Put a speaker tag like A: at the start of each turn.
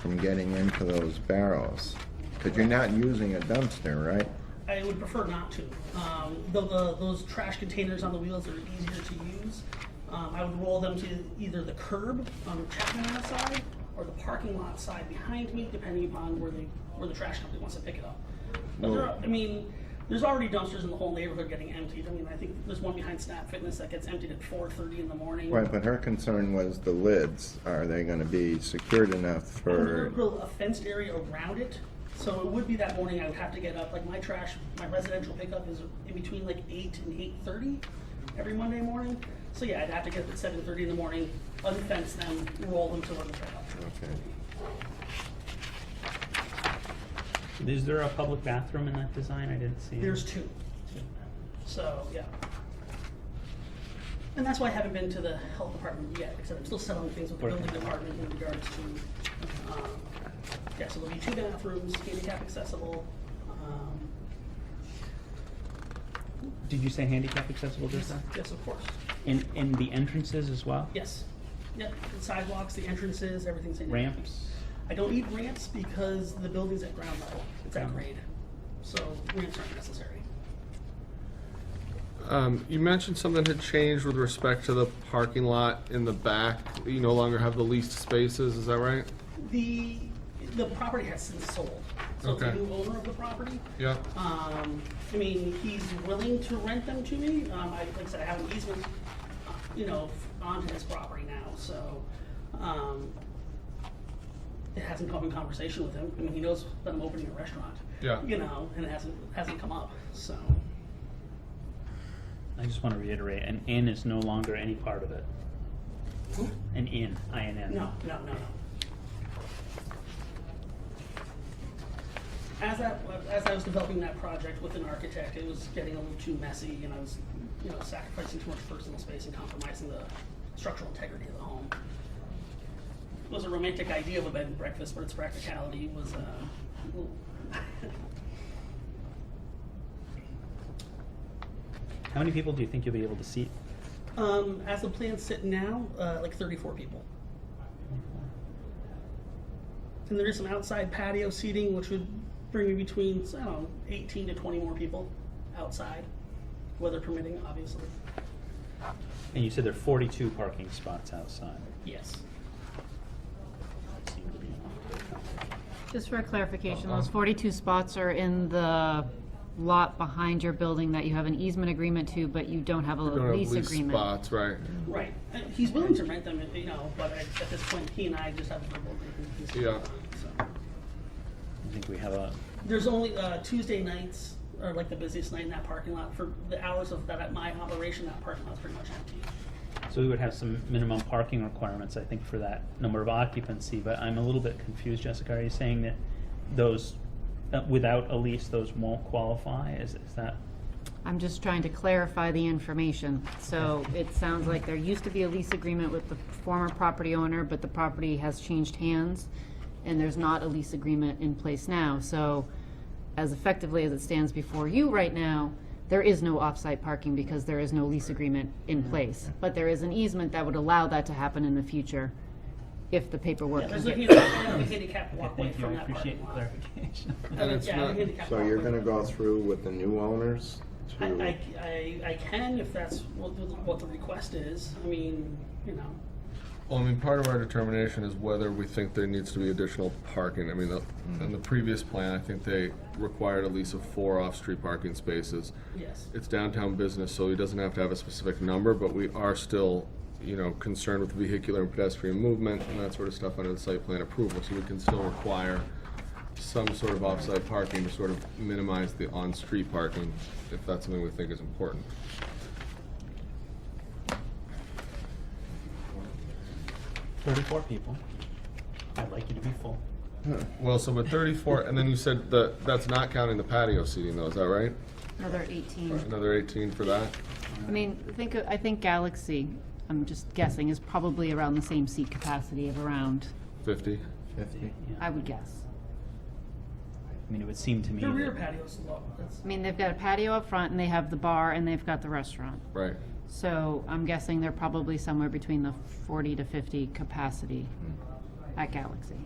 A: from getting into those barrels? Because you're not using a dumpster, right?
B: I would prefer not to. Um, though the, those trash containers on the wheels are easier to use, um, I would roll them to either the curb on the Chapman side or the parking lot side behind me, depending upon where the where the trash company wants to pick it up. But there are, I mean, there's already dumpsters in the whole neighborhood getting emptied. I mean, I think there's one behind Snap Fitness that gets emptied at 4:30 in the morning.
A: Right, but her concern was the lids. Are they gonna be secured enough
B: And we would
A: for,
B: build a fenced area around it, so it would be that morning I would have to get up, like my trash, my residential pickup is in between like eight and eight thirty every Monday morning. So yeah, I'd have to get up at seven thirty in the morning, unfence them, roll them to one pickup.
A: okay,
C: Is there a public bathroom in that design? I didn't see. it.
B: There's two, so yeah. And that's why I haven't been to the health department yet, because I'm still settling things with the building department in regards to, um, yeah, so there'll be two bathrooms, handicap accessible, um,
C: Did you say handicap accessible just
B: Yes,
C: now?
B: yes, of course.
C: In, in the entrances as well?
B: Yes. Yep, the sidewalks, the entrances, everything's in.
C: Ramps?
B: I don't need ramps because the building's at ground level. It's at
C: Ground
B: grade. So ramps aren't necessary.
D: Um, you mentioned something had changed with respect to the parking lot in the back. You no longer have the leased spaces, is that right?
B: The, the property has since sold. So the
D: Okay.
B: new owner of the property.
D: Yeah.
E: Uh,
B: Um, I mean, he's willing to rent them to me. Um, I, like I said, I have an easement, uh, you know, onto his property now, so, um, it hasn't come in conversation with him. I mean, he knows that I'm opening a restaurant.
D: Yeah.
B: You know, and it hasn't, hasn't come up, so.
C: I just want to reiterate, an inn is no longer any part of it. An inn, I N N.
B: No, no, no, no. As that, as I was developing that project with an architect, it was getting a little too messy, and I was, you know, sacrificing too much personal space and compromising the structural integrity of the home. It was a romantic idea of a bed and breakfast, but its practicality was, uh, a little-
C: How many people do you think you'll be able to seat?
B: um, as the plans sit now, uh, like thirty-four people. And there is some outside patio seating, which would bring me between, I don't know, 18 to 20 more people outside, weather permitting, obviously.
C: And you said there are forty-two parking spots outside.
B: Yes.
C: That seemed to be enough.
E: Just for clarification,
D: Uh-huh.
E: those 42 spots are in the lot behind your building that you have an easement agreement to, but you don't have a
D: You don't have
E: lease
D: leased
E: agreement.
D: spots, right?
B: Right. Uh, He's willing to rent them, you know, but at at this point, he and I just have a verbal agreement.
D: Yeah.
B: So,
C: I think we have a,
B: There's only uh, Tuesday nights are like the busiest night in that parking lot. For the hours of that, my operation, that parking lot's pretty much empty.
C: so we would have some minimum parking requirements, I think, for that number of occupancy, but I'm a little bit confused, Jessica. Are you saying that those, uh, without a lease, those won't qualify? Is, is that?
E: I'm just trying to clarify the information. So it sounds like there used to be a lease agreement with the former property owner, but the property has changed hands, and there's not a lease agreement in place now. So as effectively as it stands before you right now, there is no off-site parking because there is no lease agreement in
B: Mm-hmm.
E: place. But there is an easement that would allow that to happen in the future if the paperwork
B: There's
E: can
B: a
E: get
B: handicap- a handicap walkway
C: Thank you,
B: from
C: I
B: that
C: appreciate
B: parking
C: the
B: lot.
C: clarification.
D: And it's
B: Yeah,
D: not-
B: a handicap
A: so you're
B: walkway.
A: gonna go through with the new owners
B: I,
A: to,
B: I, I, I can if that's what, the- what the request is. I mean, you know,
D: Well, I mean, part of our determination is whether we think there needs to be additional parking. I mean, the- in the previous plan, I think they required a lease of four off-street parking spaces.
B: yes.
D: It's downtown business, so he doesn't have to have a specific number, but we are still, you know, concerned with vehicular and pedestrian movement and that sort of stuff under the site plan approval, so we can still require some sort of off-site parking to sort of minimize the on-street parking, if that's something we think is important.
C: Thirty-four people. I'd like you to be full.
D: Well, so with thirty-four, and then you said that, that's not counting the patio seating though, is that right?
E: another 18.
D: Another eighteen for that?
E: I mean, think, of- I think Galaxy, I'm just guessing, is probably around the same seat capacity of around,
D: Fifty?
C: Yeah.
E: I would guess.
C: I mean, it would seem to me.
B: The rear
C: that-
B: patio's low. That's,
E: I mean, they've got a patio up front, and they have the bar, and they've got the restaurant.
D: Right.
E: So I'm guessing they're probably somewhere between the 40 to 50 capacity at Galaxy.